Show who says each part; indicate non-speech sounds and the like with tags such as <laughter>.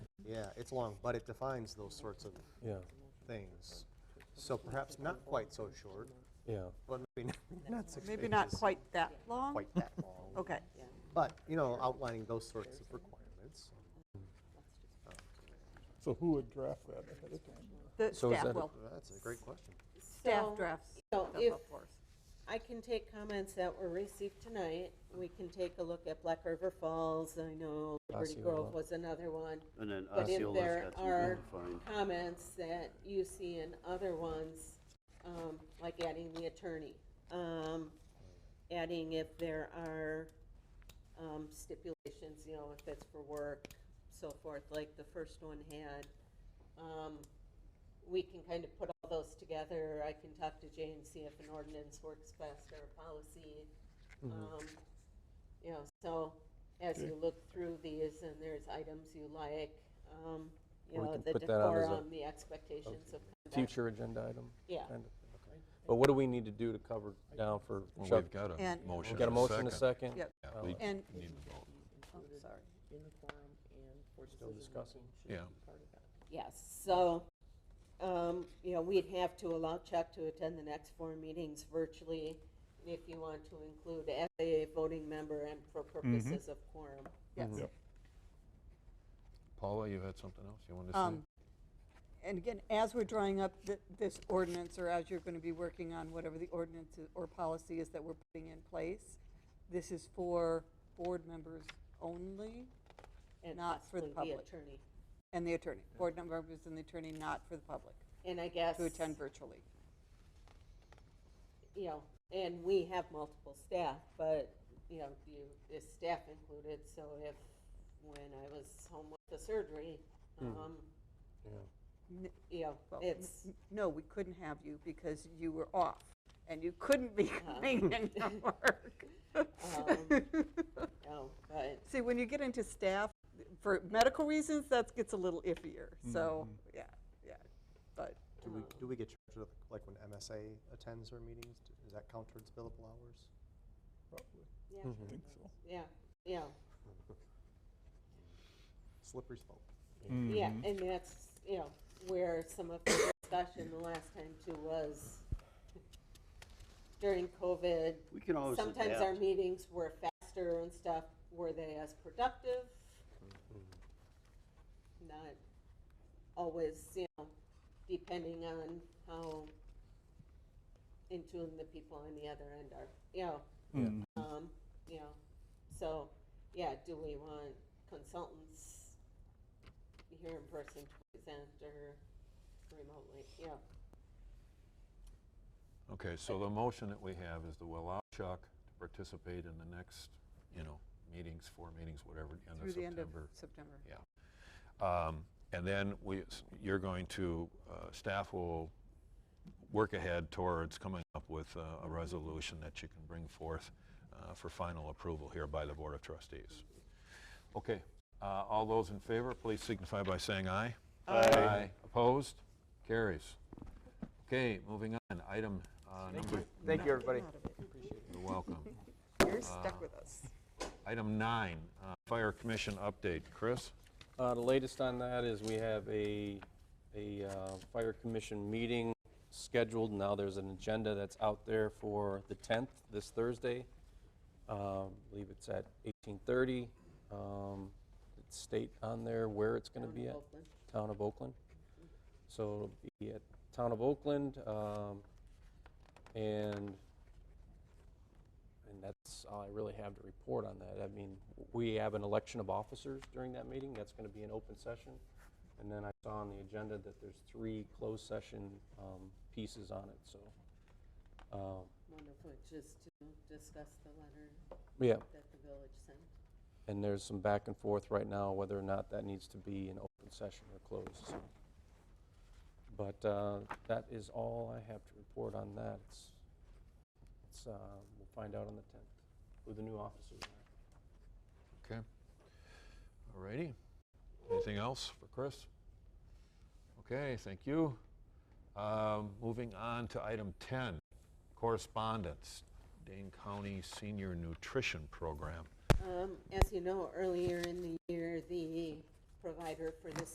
Speaker 1: it's long, but it defines those sorts of
Speaker 2: yeah,
Speaker 1: things. So perhaps not quite so short,
Speaker 2: yeah.
Speaker 1: but maybe not- not six
Speaker 3: Maybe not
Speaker 1: pages,
Speaker 3: quite that long?
Speaker 1: Quite that long.
Speaker 3: <laughs> Okay,
Speaker 1: But, you know, outlining those sorts of requirements.
Speaker 4: So who would draft that ahead of time?
Speaker 3: the
Speaker 2: So is
Speaker 3: staff
Speaker 2: that a-
Speaker 3: will,
Speaker 1: That's a great question.
Speaker 3: staff
Speaker 5: So,
Speaker 3: drafts
Speaker 5: so
Speaker 3: stuff
Speaker 5: if-
Speaker 3: up for us.
Speaker 5: I can take comments that were received tonight. We can take a look at Black River Falls. I know Liberty
Speaker 2: Osceola.
Speaker 5: Grove was another one.
Speaker 6: And then
Speaker 5: But if
Speaker 6: Osceola's
Speaker 5: there
Speaker 6: got some
Speaker 5: are
Speaker 6: good fine.
Speaker 5: comments that you see in other ones, um, like adding the attorney, um, adding if there are um, stipulations, you know, if it's for work, so forth, like the first one had, um, we can kind of put all those together. I can talk to Jay and see if an ordinance works best or a policy.
Speaker 2: Mm-hmm.
Speaker 5: Um, You know, so as you look through these and there's items you like, um, you
Speaker 2: Well, we
Speaker 5: know,
Speaker 2: can
Speaker 5: the
Speaker 2: put that out as a-
Speaker 5: decorum, the expectations of conduct.
Speaker 2: Future agenda item
Speaker 5: Yeah.
Speaker 2: kind of thing. But what do we need to do to cover down for
Speaker 7: Well,
Speaker 2: Chuck?
Speaker 7: We've got a
Speaker 3: And-
Speaker 7: motion.
Speaker 2: We've got a
Speaker 7: and
Speaker 2: motion and a second?
Speaker 3: Yep.
Speaker 7: Yeah,
Speaker 2: Uh,
Speaker 7: we
Speaker 3: And,
Speaker 7: need to vote.
Speaker 3: oh, sorry.
Speaker 2: Still discussing?
Speaker 7: Yeah.
Speaker 5: Yes, so, um, you know, we'd have to allow Chuck to attend the next four meetings virtually if you want to include as a voting member and for
Speaker 4: Mm-hmm.
Speaker 5: purposes of quorum.
Speaker 3: Yes.
Speaker 7: Paula, you had something else you wanted to
Speaker 3: Um,
Speaker 7: say?
Speaker 3: And again, as we're drawing up th- this ordinance, or as you're going to be working on whatever the ordinance is- or policy is that we're putting in place, this is for board members only
Speaker 5: and
Speaker 3: Not for the
Speaker 5: possibly
Speaker 3: public.
Speaker 5: attorney.
Speaker 3: and the attorney. Board members and the attorney, not for the public,
Speaker 5: And I guess,
Speaker 3: to attend virtually.
Speaker 5: you know, and we have multiple staff, but, you know, you, is staff included, so if, when I was home with the surgery,
Speaker 4: Hmm.
Speaker 5: um,
Speaker 3: N-
Speaker 5: you know,
Speaker 3: well, n-
Speaker 5: it's,
Speaker 3: n- No, we couldn't have you because you were off, and you couldn't be coming <laughs> into work. Um.
Speaker 5: you know, oh, but
Speaker 3: <laughs> See, when you get into staff, for medical reasons, that gets a little iffier, so, yeah, yeah, but.
Speaker 1: Do we, do we get charged with, like, when MSA attends our meetings? Is that count towards billable hours?
Speaker 4: Probably,
Speaker 5: Yeah.
Speaker 4: I think so.
Speaker 5: Yeah, yeah,
Speaker 1: Slippery slope.
Speaker 5: yeah, and that's, you know, where some of the discussion the last time too was during COVID,
Speaker 6: We can always
Speaker 5: sometimes our
Speaker 6: adapt.
Speaker 5: meetings were faster and stuff, were they as productive? Not always, you know, depending on how in tune the people on the other end are, you know. Um, you know, so, yeah, do we want consultants here in person to present or remotely, you know?
Speaker 7: Okay, so the motion that we have is to allow Chuck to participate in the next, you know, meetings, four meetings, whatever, end of
Speaker 3: Through the end of
Speaker 7: September.
Speaker 3: September.
Speaker 7: Um, And then we, you're going to, uh, staff will work ahead towards coming up with uh, a resolution that you can bring forth uh, for final approval here by the Board of Trustees. Okay, uh, all those in favor, please signify by saying aye. Aye. Opposed? Carries. Okay, moving on, item uh, number,
Speaker 2: Thank you, everybody.
Speaker 7: you're welcome.
Speaker 3: You're stuck with us.
Speaker 7: Item nine, uh, Fire Commission update. Chris?
Speaker 2: Uh, The latest on that is we have a, a uh, fire commission meeting scheduled. Now, there's an agenda that's out there for the 10th, this Thursday. Um, I believe it's at 18:30. Um, It's state on there where it's going to be at.
Speaker 5: Oakland.
Speaker 2: Town of Oakland. So it'll be at Town of Oakland, um, and, and that's all I really have to report on that. I mean, we have an election of officers during that meeting, that's gonna be an open session. And then I saw on the agenda that there's three closed session, um, pieces on it, so, um,
Speaker 5: One of which is to discuss the letter
Speaker 2: yeah.
Speaker 5: that the village sent.
Speaker 2: And there's some back and forth right now whether or not that needs to be an open session or closed. so. But uh, that is all I have to report on that. It's, it's, uh, we'll find out on the 10th who the new officers are.
Speaker 7: Okay. All righty. Anything else for Chris? Okay, thank you. Um, Moving on to item 10, correspondence, Dane County Senior Nutrition Program.
Speaker 5: Um, As you know, earlier in the year, the provider for the